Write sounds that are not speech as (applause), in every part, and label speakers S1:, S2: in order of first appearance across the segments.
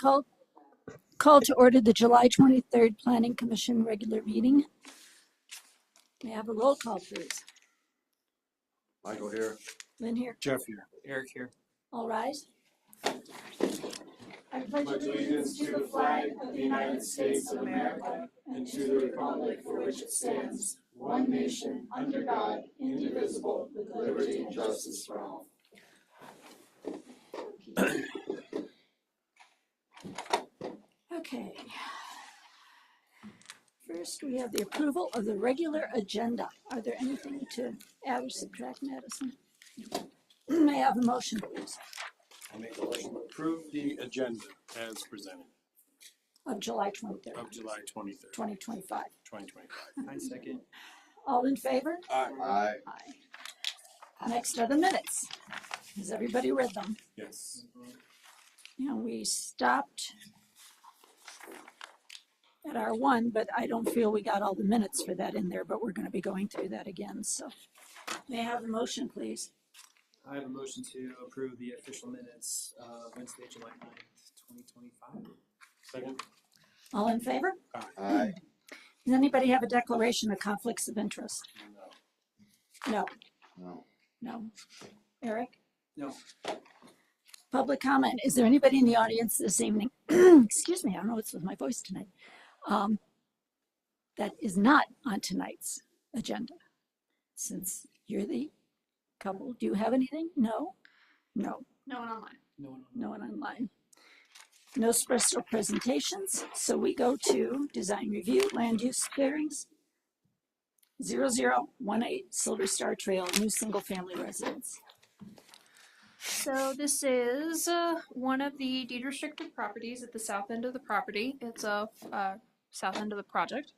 S1: call, call to order the July 23rd Planning Commission regular meeting. May I have a roll call, please?
S2: Michael here.
S1: Lynn here,
S2: Jeff here.
S3: Eric here.
S1: all rise. I pledge
S4: pledge allegiance to the flag of the United States of America and to the republic for which it stands, one nation, under God, indivisible, with liberty and justice for all.
S1: Okay. First, we have the approval of the regular agenda. Are there anything to add or subtract, Madison? May I have a motion, please,
S2: I make a motion to approve the agenda as presented
S1: of July 23rd,
S2: of July twenty-third,
S1: 2025?
S2: twenty twenty-five.
S3: I second.
S1: All in favor?
S4: Aye.
S1: Aye. Next are the minutes. Has everybody read them?
S2: Yes.
S1: You know, we stopped at our one, but I don't feel we got all the minutes for that in there, but we're gonna be going through that again, so. May I have a motion, please?
S3: I have a motion to approve the official minutes of Wednesday, July ninth, twenty twenty-five.
S2: Second?
S1: All in favor?
S4: Aye.
S1: Does anybody have a declaration of conflicts of interest?
S2: No.
S1: No,
S4: No.
S1: no. Eric?
S3: No.
S1: Public comment. Is there anybody in the audience this evening? (clears throat) Excuse me, I don't know what's with my voice tonight. Um, that is not on tonight's agenda. Since you're the couple, do you have anything? No? No,
S5: No one online.
S3: No one
S1: no one online. No special presentations, so we go to design review, land use clearings. Zero zero one eight Silver Star Trail, new single family residence.
S5: So this is uh, one of the deed restricted properties at the south end of the property. It's a uh, south end of the project.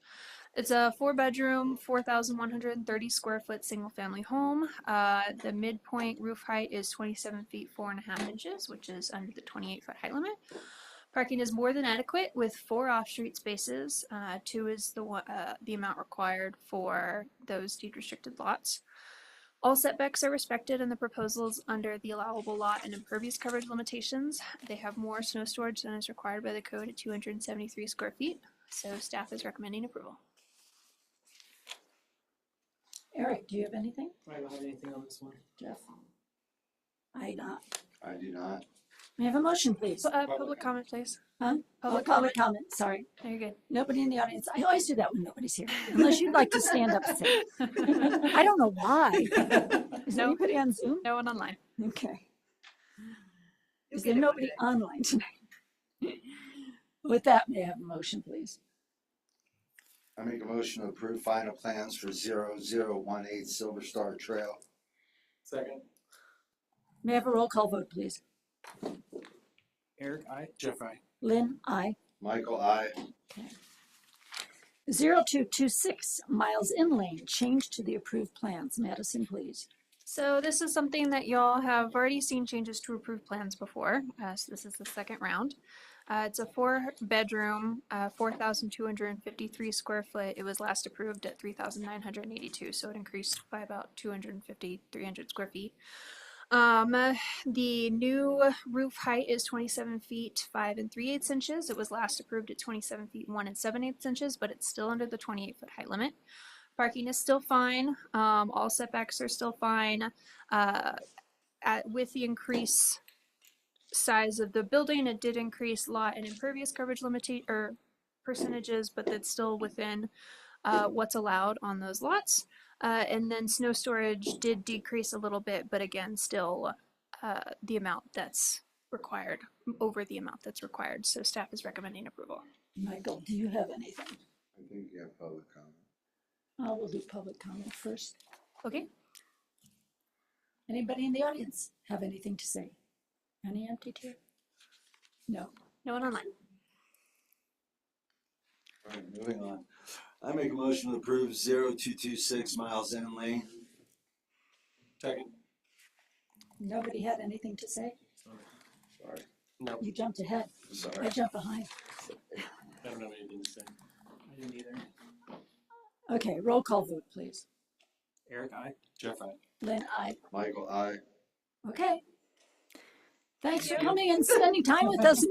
S5: It's a four bedroom, 4,130 square foot single family home. Uh, the midpoint roof height is 27 feet, four and a half inches, which is under the 28 foot height limit. Parking is more than adequate with four off street spaces. Uh, two is the, one- uh, the amount required for those deed restricted lots. All setbacks are respected in the proposals under the allowable lot and impervious coverage limitations. They have more snow storage than is required by the code at 273 square feet, so staff is recommending approval.
S1: Eric, do you have anything?
S3: I don't have anything on this one.
S1: Jeff? I not.
S4: I do not.
S1: May I have a motion, please?
S5: Pu- uh,
S2: Public
S5: Public comment, please.
S1: Huh?
S5: Public
S1: Public
S5: comment.
S1: comment, sorry.
S5: No, You're good.
S1: Nobody in the audience. I always do that when nobody's here, unless you'd like to stand up and say. it. I don't know why. Is
S5: No.
S1: anybody on Zoom?
S5: No one online.
S1: Okay. Is there nobody online tonight? With that, may I have a motion, please?
S4: I make a motion to approve final plans for zero zero one eight Silver Star Trail.
S3: Second.
S1: May I have a roll call vote, please?
S3: Eric, I.
S2: Jeff, I.
S1: Lynn, aye.
S4: Michael, I.
S1: 0226 Miles In Lane, change to the approved plans. Madison, please.
S5: So this is something that y'all have already seen changes to approved plans before. Uh, so this is the second round. Uh, it's a four bedroom, uh, 4,253 square foot. It was last approved at 3,982, so it increased by about 250, 300 square feet. Um, uh, the new roof height is 27 feet, 5 and 3 eighths inches. It was last approved at 27 feet, 1 and 7 eighths inches, but it's still under the 28 foot height limit. Parking is still fine. Um, all setbacks are still fine. Uh, at, with the increase size of the building, it did increase lot and impervious coverage limita- or percentages, but that's still within uh, what's allowed on those lots. Uh, and then snow storage did decrease a little bit, but again, still uh, the amount that's required, over the amount that's required. So staff is recommending approval.
S1: Michael, do you have anything?
S4: I think you have public comment.
S1: Uh, we'll do public comment first.
S5: Okay.
S1: Anybody in the audience have anything to say? Any empty chair? No.
S5: No one online.
S4: All right, moving on. I make a motion to approve zero two two six Miles End Lane.
S2: Second?
S1: Nobody had anything to say?
S4: Sorry.
S2: No,
S1: You jumped ahead. I
S4: Sorry.
S1: jumped behind.
S2: I don't have anything to say.
S3: I didn't either.
S1: Okay, roll call vote, please.
S3: Eric, I.
S2: Jeff, I.
S1: Lynn, I.
S4: Michael, I.
S1: Okay. Thanks for coming and spending time with us